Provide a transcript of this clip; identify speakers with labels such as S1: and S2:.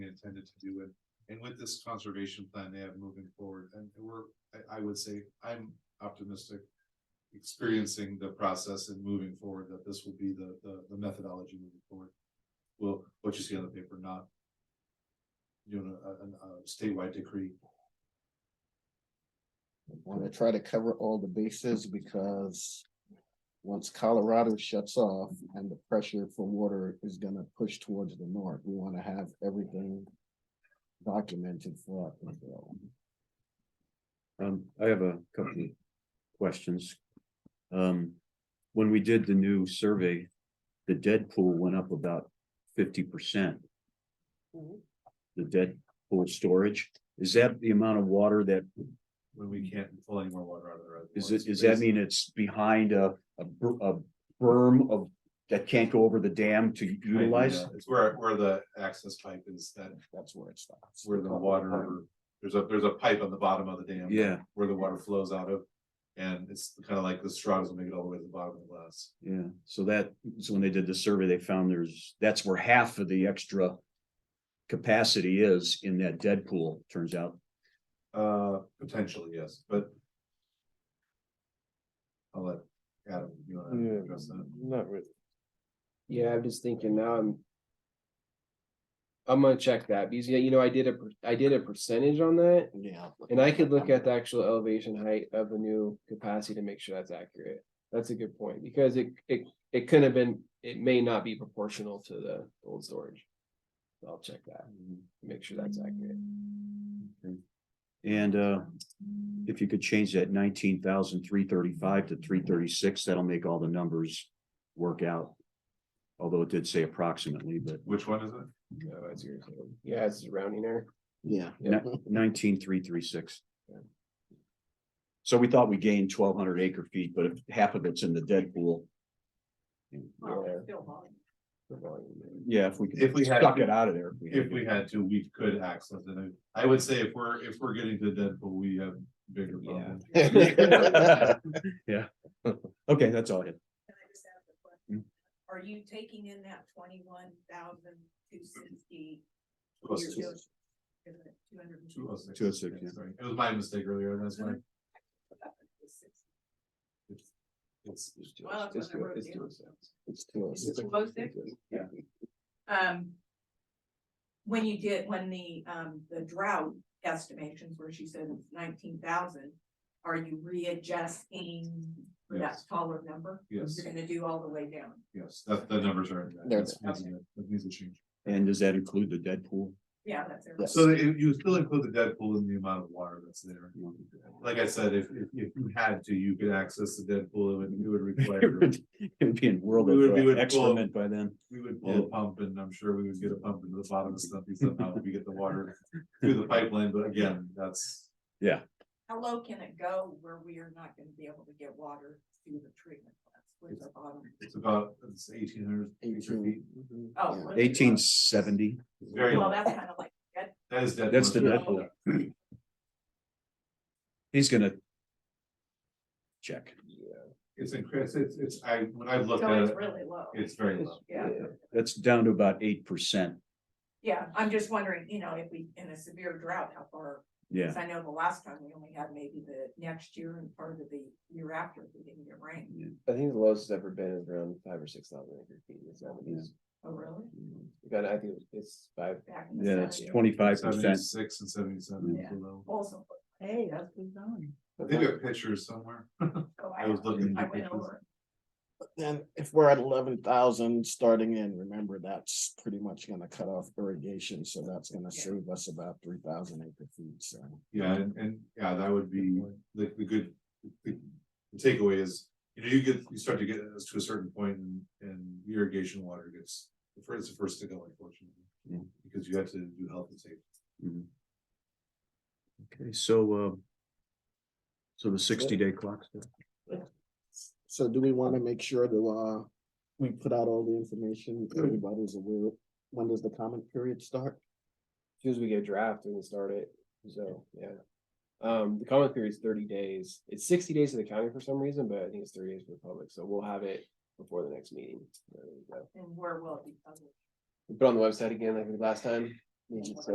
S1: intended to do it. And with this conservation plan they have moving forward, and we're, I, I would say, I'm optimistic. Experiencing the process and moving forward, that this will be the, the, the methodology moving forward. Well, what you see on the paper, not. Doing a, a, a statewide decree.
S2: want to try to cover all the bases because once Colorado shuts off and the pressure for water is gonna push towards the north, we want to have everything documented for Uplandville.
S3: Um, I have a couple of questions. Um, when we did the new survey, the dead pool went up about fifty percent.
S4: Mhm.
S3: The dead pool storage, is that the amount of water that,
S1: When we can't pull any more water out of the reservoir.
S3: is it, does that mean it's behind a, a, br- a berm of, that can't go over the dam to utilize?
S1: It's where, where the access pipe is, that,
S2: That's where it stops.
S1: where the water, there's a, there's a pipe on the bottom of the dam.
S3: Yeah,
S1: Where the water flows out of, and it's kind of like the straws will make it all the way to the bottom of the glass.
S3: yeah, so that, so when they did the survey, they found there's, that's where half of the extra capacity is in that dead pool, turns out.
S1: Uh, potentially, yes, but. I'll let Adam, you wanna
S5: Yeah.
S1: address that?
S5: Not really.
S4: Yeah, I'm just thinking now, I'm. I'm gonna check that, because yeah, you know, I did a, per- I did a percentage on that,
S2: Yeah.
S4: and I could look at the actual elevation height of the new capacity to make sure that's accurate. That's a good point, because it, it, it couldn't have been, it may not be proportional to the old storage. So I'll check that, make sure that's accurate.
S3: And uh, if you could change that nineteen thousand three thirty-five to three thirty-six, that'll make all the numbers work out. Although it did say approximately, but
S1: Which one is it?
S4: No, that's your, yeah, it's a rounding error.
S2: Yeah.
S3: nineteen three three six. So we thought we gained twelve hundred acre feet, but if half of it's in the dead pool.
S4: Yeah, the volume.
S3: Yeah, if we could.
S1: If we had-
S3: Suck it out of there.
S1: If we had to, we could access it. I I would say if we're, if we're getting to Deadpool, we have bigger problems.
S3: Yeah. Okay, that's all I had.
S6: Can I just ask a
S1: Hmm?
S6: question? Are you taking in that twenty-one thousand two sixty?
S1: Plus two-
S6: Two hundred.
S1: two oh six.
S3: 206, yeah.
S1: Sorry. It was my mistake earlier, that's why. It's,
S6: Well, that's what I wrote down.
S2: It's too-
S6: Is it close there?
S3: Yeah.
S6: Um. When you did, when the, um, the drought estimations where she said it's nineteen thousand, are you readjusting that
S1: Yes.
S6: taller number?
S1: Yes.
S6: You're gonna do all the way down?
S1: yes, that, the numbers are in.
S2: They're
S1: there. That's- that's- That needs to change.
S3: And does that include the dead pool?
S6: Yeah, that's it.
S2: Yes.
S1: So you, you still include the Deadpool in the amount of water that's there. Like I said, if, if, if you had to, you could access the Deadpool, it would, it would require.
S3: It would be in world
S1: We would- we would
S3: of
S1: pull-
S3: excrement by then.
S1: We would pull a pump and I'm sure we would get a pump into the bottom of something somehow, we get the water through the pipeline, but again, that's.
S6: How low can it go where we are not gonna be able to get water through the treatment plants with the bottom?
S1: It's about, it's eighteen hundred feet.
S2: Eighteen. Mhm.
S6: Oh,
S2: Yeah.
S6: what is it?
S3: Eighteen seventy.
S1: It's very
S6: Well,
S1: long.
S6: that's kind of like,
S1: That is Deadpool.
S3: That's the Deadpool. He's gonna. Check.
S1: It's incredible, it's, it's, I, when I looked
S6: so
S1: at
S6: it's
S1: it,
S6: really low.
S1: uh, it's very low.
S6: Yeah,
S3: That's down to about eight percent.
S6: yeah, I'm just wondering, you know, if we, in a severe drought, how far?
S3: Yeah,
S6: Cause I know the last time we only had maybe the next year and part of the year after, if we didn't get rain.
S4: I think the lowest it's ever been is around five or six thousand acre feet in the seventies.
S6: Oh, really?
S4: We got, I think it's five,
S6: Back in the
S3: yeah, it's
S6: 70s.
S3: twenty-five percent.
S1: Seventy-six and seventy-seven
S6: Yeah.
S1: below.
S6: Also, hey, that's good going.
S1: I think we have pictures somewhere.
S6: So
S1: I was looking
S6: I
S1: at the
S6: went
S1: pictures.
S6: over. it.
S2: Then if we're at eleven thousand starting in, remember that's pretty much gonna cut off irrigation, so that's gonna
S6: Yeah.
S2: save us about three thousand acre feet, so.
S1: Yeah, and, and, yeah, that would be the, the good, the the takeaway is, you know, you get, you start to get us to a certain point and, and irrigation water gets. The first, the first to go unfortunately.
S3: Yeah.
S1: Because you have to do health and safety.
S3: Okay, so, uh. So the sixty-day clock.
S2: So do we wanna make sure that, uh, we put out all the information, everybody's aware, when does the comment period start?
S4: as soon as we get a draft, we can start it, so, yeah. Um, the comment period is thirty days, it's sixty days to the county for some reason, but I think it's thirty days for the public, so we'll have it before the next meeting. There we go.
S6: And where will it be? published?
S4: We Put it on the website again like we did last time,
S6: means